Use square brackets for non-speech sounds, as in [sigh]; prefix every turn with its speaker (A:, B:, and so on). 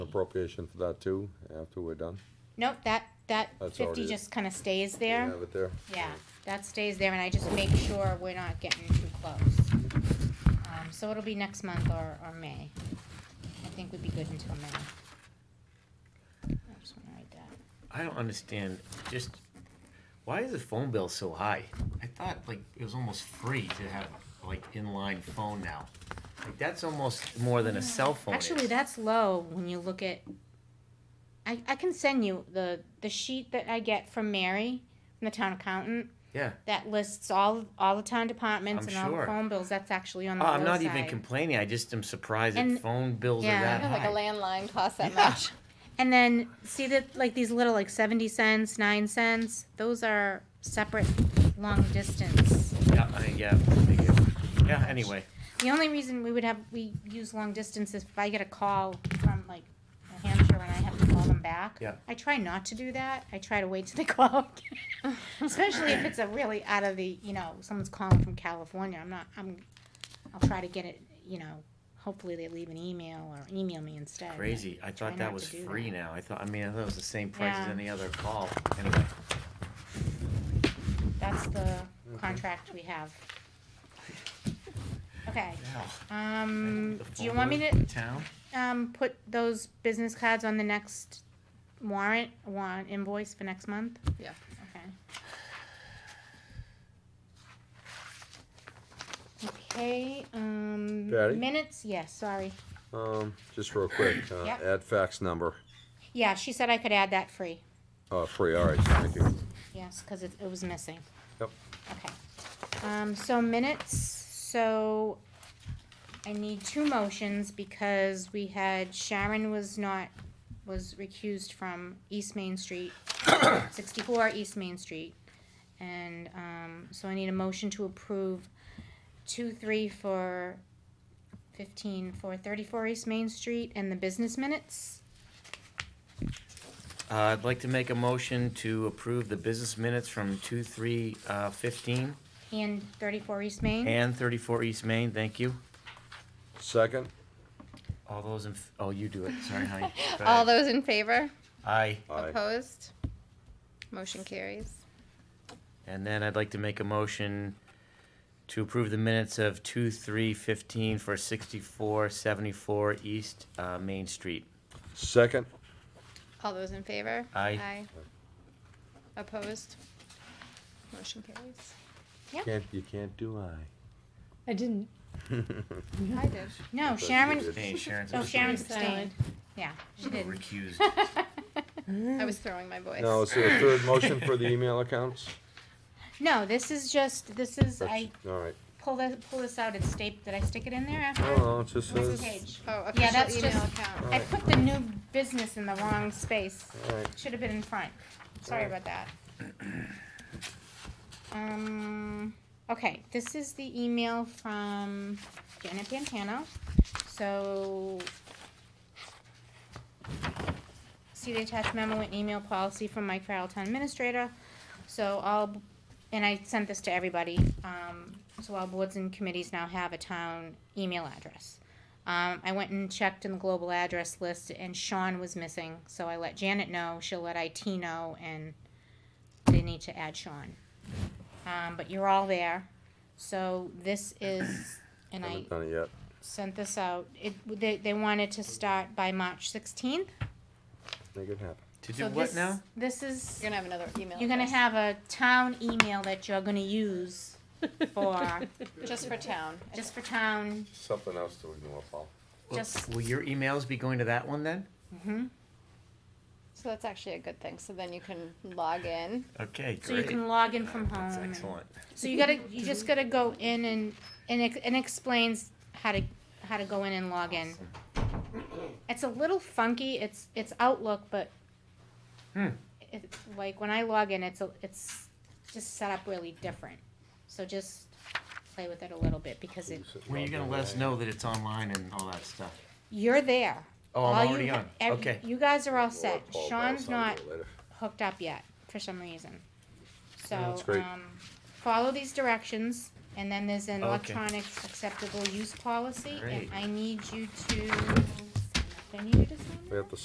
A: appropriation for that too, after we're done?
B: Nope, that, that
A: That's
B: fifty
A: already-
B: just kinda stays
A: Do you
B: there.
A: have it there?
B: Yeah, that stays there, and I just make sure we're not getting too close. Um, so it'll be next month or, or May. I think we'd be good until May. I just wanna write that.
C: I don't understand. Just why is the phone bill so high? I thought like it was almost free to have like inline phone now. Like that's almost more than a cell phone.
B: Actually,
C: is.
B: that's low when you look at, I, I can send you the, the sheet that I get from Mary, from the town accountant,
C: yeah.
B: that lists all, all the town departments
C: I'm
B: and all the
C: sure.
B: phone bills, that's actually on the
C: Oh,
B: low
C: I'm not even
B: side.
C: complaining. I just am surprised
B: And-
C: that phone bills
B: yeah.
C: are that
B: Yeah,
C: high.
D: landline costs that
C: Yeah.
B: [laughs] And then see that like these little like seventy cents, nine cents, those are separate long distance.
C: yeah, I, yeah, I get- yeah. Anyway,
B: The only reason we would have we use long distance is if I get a call from like New Hampshire and I have to call them back.
C: Yeah.
B: I try not to do that. I try to wait till they [laughs] call. again. Especially if it's a really out of the you know, someone's calling from California. I'm not I'm I'll try to get it, you know, hopefully they leave an email or email me instead. but-
C: crazy. I
B: Try
C: thought that
B: not
C: was
B: to do
C: free
B: that.
C: now. I thought. I mean, I thought it was the same price as
B: Yeah.
C: any other call. Anyway,
B: That's the contract we have. Okay,
C: yeah.
B: um,
C: The
B: do you
C: phone
B: want me
C: bill
B: to,
C: in Town.
B: um, put those business cards on the next warrant, warrant invoice for next month?
D: Yeah.
B: Okay. Okay, um,
A: Patty?
B: minutes, yes, sorry.
A: Um, just real quick, uh,
B: Yep.
A: add fax number,
B: Yeah, she said I could add that free,
A: uh, free, all right, thank you.
B: yes, cause it, it was missing.
A: Yep,
B: Okay, um, so minutes, so I need two motions because we had Sharon was not, was recused from East Main Street, [coughs] sixty-four East Main Street. And, um, so I need a motion to approve two, three for fifteen, for thirty-four East Main Street and the business minutes.
C: Uh, I'd like to make a motion to approve the business minutes from two, three, uh, fifteen
B: And thirty-four East Main,
C: and thirty-four East Main, thank you.
A: second,
C: All those in, f- oh, you do it,
B: [laughs]
C: sorry, honey. Go
D: All
C: ahead.
D: those in favor?
C: Aye,
A: aye,
D: Opposed? Motion carries.
C: and then I'd like to make a motion to approve the minutes of two, three, fifteen for sixty-four, seventy-four East, uh, Main Street.
A: second,
D: All those in favor?
C: Aye.
D: Aye. Opposed? Motion carries.
A: can't, you can't do aye.
E: I didn't.
D: I did.
B: no,
A: But you
B: Sharon,
A: did.
C: Hey, Sharon's.
B: oh, Sharon abstained,
C: abstained.
B: yeah, she did. [laughs]
C: Recused.
D: I was throwing my voice.
A: Now, is there a third motion for the email
B: [laughs]
A: accounts?
B: No, this is just, this is, I
A: That's- All right,
B: pull this, pull this out and staple, did I stick it in there after?
A: no, no, it just
B: What's the
A: says,
B: page?
D: Oh,
B: Yeah, that's
D: official email
B: just-
D: account.
B: I put the new business in the wrong space,
A: all right,
B: should have been in front, sorry about that. Um, okay, this is the email from Janet Pantano, so. See the attached memo and email policy from Mike Farrell, town administrator, so all, and I sent this to everybody, um, so all boards and committees now have a town email address. Um, I went and checked in the global address list and Sean was missing, so I let Janet know, she'll let IT know, and they need to add Sean. Um, but you're all there, so this is, and I
A: haven't done it yet,
B: sent this out, it, they, they wanted to start by March sixteenth.
A: make it happen.
C: To do
B: So
C: what
B: this-
C: now?
B: This is,
D: You're gonna have another email.
B: you're gonna
D: address.
B: have a town email that you're gonna use
E: [laughs]
B: for,
D: Just for town.
B: just for town,
A: Something else to ignore, Paul.
C: Will-
B: just-
C: Will your emails be going to that one then?
B: mhm.
D: So that's actually a good thing. So then you can log in.
C: Okay, great.
B: so you can log in from home.
C: That's
B: and-
C: excellent.
B: So you gotta, you just gotta go in and, and it, and explains how to, how to go in and log in.
C: Awesome.
B: It's a little funky, it's, it's Outlook, but
C: Hmm.
B: it's, like, when I log in, it's, a it's just set up really different. So just play with it a little bit, because it,
C: When are you gonna let us know that it's online and all that stuff?
B: you're there.
C: Oh, I'm
B: All you
C: already
B: ha-
C: on,
B: ev-
C: okay.
B: You guys are all set, Sean's not hooked up yet, for some reason. So,
A: that's great.
B: um, follow these directions, and then there's an
C: Okay.
B: electronic acceptable use policy, and
C: Great.
B: I need you to, I need you to sign
A: We
B: that?
A: have to